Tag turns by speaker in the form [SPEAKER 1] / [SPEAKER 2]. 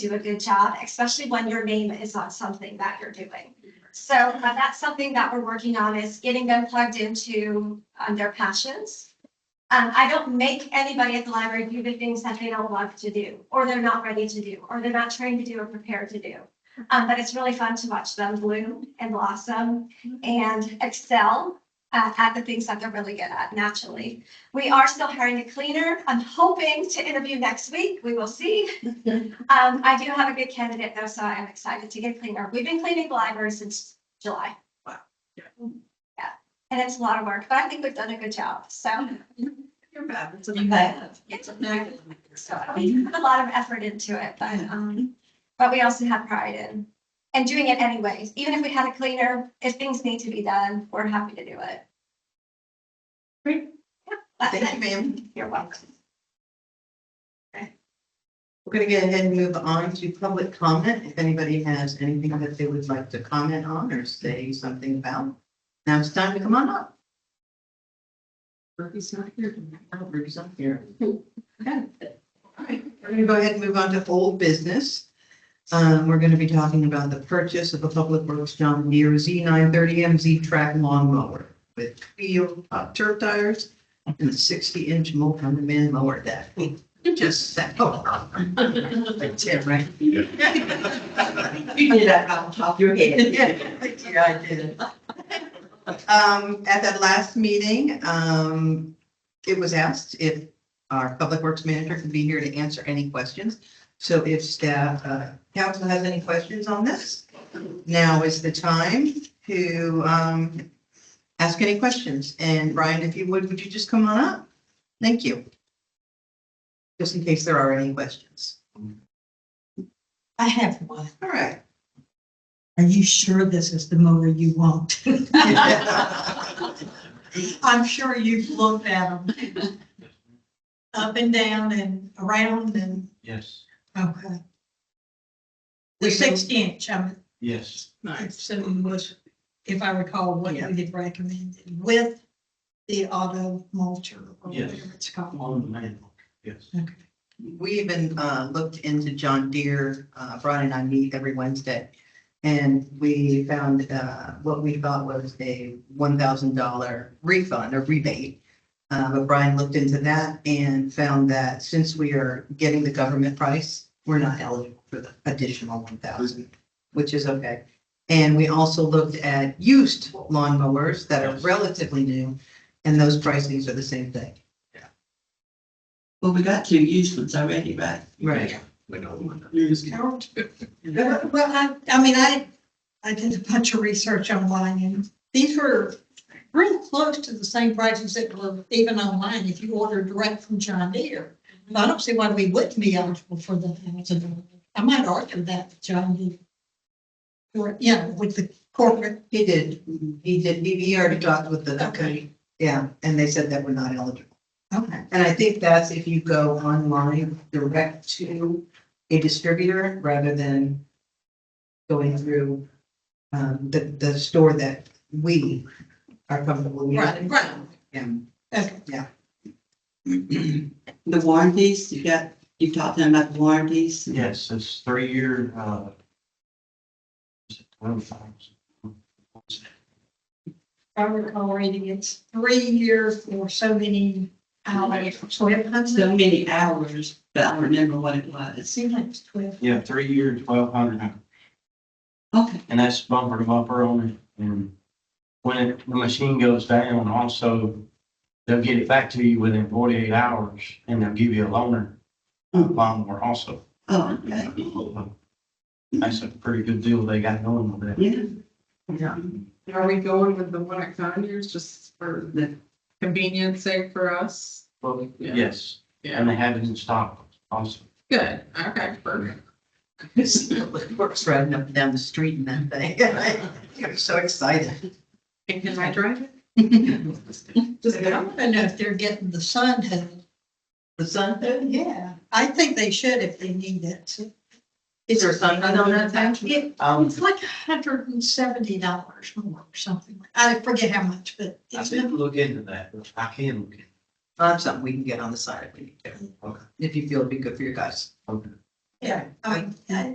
[SPEAKER 1] do a good job, especially when your name is on something that you're doing. So uh, that's something that we're working on is getting them plugged into um, their passions. Um, I don't make anybody at the library do the things that they don't love to do, or they're not ready to do, or they're not trained to do or prepared to do. Um, but it's really fun to watch them bloom and blossom and excel uh, at the things that they're really good at naturally. We are still hiring a cleaner. I'm hoping to interview next week. We will see. Um, I do have a good candidate though, so I am excited to get cleaner. We've been cleaning the library since July.
[SPEAKER 2] Wow. Yeah.
[SPEAKER 1] Yeah, and it's a lot of work, but I think we've done a good job, so.
[SPEAKER 2] You're bad. It's a
[SPEAKER 3] You
[SPEAKER 2] bad.
[SPEAKER 1] It's a
[SPEAKER 2] bad.
[SPEAKER 1] So we put a lot of effort into it, but, um, but we also have pride in, and doing it anyways. Even if we had a cleaner, if things need to be done, we're happy to do it.
[SPEAKER 2] Great.
[SPEAKER 1] Yeah, that's
[SPEAKER 2] Thank you,
[SPEAKER 1] it.
[SPEAKER 2] ma'am.
[SPEAKER 1] You're welcome.
[SPEAKER 2] We're gonna go ahead and move on to public comment. If anybody has anything that they would like to comment on or say something about, now it's time to come on up. Ruby's not here. tonight. No, Ruby's not here. Okay. All right, we're gonna go ahead and move on to old business. Um, we're gonna be talking about the purchase of a Public Works John Deere Z nine thirty MZ track lawn mower with wheel uh, turf tires and a sixty inch multi-man mower deck. You just Oh, said. That's it, right?
[SPEAKER 4] Yeah.
[SPEAKER 2] You did that off the top of your head. Yeah, I did. Um, at that last meeting, um, it was asked if our public works manager could be here to answer any questions. So if staff, uh, council has any questions on this, now is the time to, um, ask any questions. And Brian, if you would, would you just come on up? Thank you. Just in case there are any questions.
[SPEAKER 3] I have one.
[SPEAKER 2] All right.
[SPEAKER 3] Are you sure this is the mower you want? I'm sure you've looked at them. Up and down and around and,
[SPEAKER 4] Yes,
[SPEAKER 3] okay.
[SPEAKER 2] We know-
[SPEAKER 3] The sixty inch, I'm
[SPEAKER 4] yes.
[SPEAKER 3] assuming was, if I recall, what
[SPEAKER 2] Yeah.
[SPEAKER 3] you had recommended with the auto mulcher or
[SPEAKER 4] Yes.
[SPEAKER 3] whatever it's called.
[SPEAKER 4] On the man, yes.
[SPEAKER 3] Okay.
[SPEAKER 2] We even uh, looked into John Deere, uh, Brian and I meet every Wednesday. And we found uh, what we thought was a one thousand dollar refund or rebate. Uh, But Brian looked into that and found that since we are getting the government price, we're not eligible for the additional one thousand, which is okay. And we also looked at used lawn mowers that are
[SPEAKER 4] Yes.
[SPEAKER 2] relatively new, and those pricings are the same thing.
[SPEAKER 5] Well, we got two used ones already, right?
[SPEAKER 2] Right.
[SPEAKER 5] Lose count.
[SPEAKER 3] Well, I, I mean, I, I did a bunch of research online and these were real close to the same prices that were even online if you ordered direct from John Deere. But I don't see why we wouldn't be eligible for the thousand. dollars. I might argue that with John Deere. Or, yeah, with the corporate,
[SPEAKER 2] He did, he did, he, he already talked with the.
[SPEAKER 3] Okay.
[SPEAKER 2] Yeah, and they said that we're not eligible.
[SPEAKER 3] okay,
[SPEAKER 2] And I think that's if you go online direct to a distributor rather than going through um, the, the store that we are comfortable
[SPEAKER 3] right,
[SPEAKER 2] using.
[SPEAKER 3] right,
[SPEAKER 2] Yeah.
[SPEAKER 3] okay.
[SPEAKER 5] The warranties, you got, you talked to them about the warranties.
[SPEAKER 4] Yes, it's three year, uh. is it 12,000?
[SPEAKER 3] I recall reading it's three years for so many hours, twelve
[SPEAKER 5] So
[SPEAKER 3] hundred,
[SPEAKER 5] many hours, but I don't remember what it
[SPEAKER 3] it
[SPEAKER 5] was.
[SPEAKER 3] seemed like it's twelve.
[SPEAKER 4] Yeah, three year, twelve hundred,
[SPEAKER 5] Okay,
[SPEAKER 4] and that's bumper to bumper only, and when it- the machine goes down, also, they'll get it back to you within forty-eight hours, and they'll give you a loaner,
[SPEAKER 5] Hmm.
[SPEAKER 4] lawnmower also.
[SPEAKER 5] oh, okay,
[SPEAKER 4] That's a pretty good deal they got going with that.
[SPEAKER 5] yeah.
[SPEAKER 6] Yeah. Are we going with the one at Conyers just for the convenience sake for us?
[SPEAKER 4] Well,
[SPEAKER 6] Yeah.
[SPEAKER 4] Yes, and they have it in stock also.
[SPEAKER 6] Good, okay, perfect.
[SPEAKER 2] It Works riding up and down the street and that thing. I'm so excited.
[SPEAKER 6] And can I drive it?
[SPEAKER 3] I don't even know if they're getting the sun hood.
[SPEAKER 2] The sun,
[SPEAKER 3] Yeah. I think they should if they need it.
[SPEAKER 2] is there a sun on that thing?
[SPEAKER 3] It-
[SPEAKER 4] Um,
[SPEAKER 3] It's like hundred and seventy dollars more or something. like- I forget how much, but
[SPEAKER 4] I
[SPEAKER 3] it's,
[SPEAKER 4] didn't look into that, but I can look into
[SPEAKER 2] Uh, something we can get on the side if we need to, if you feel it'd be good for your guys.
[SPEAKER 4] Okay.
[SPEAKER 3] Yeah, I mean, I-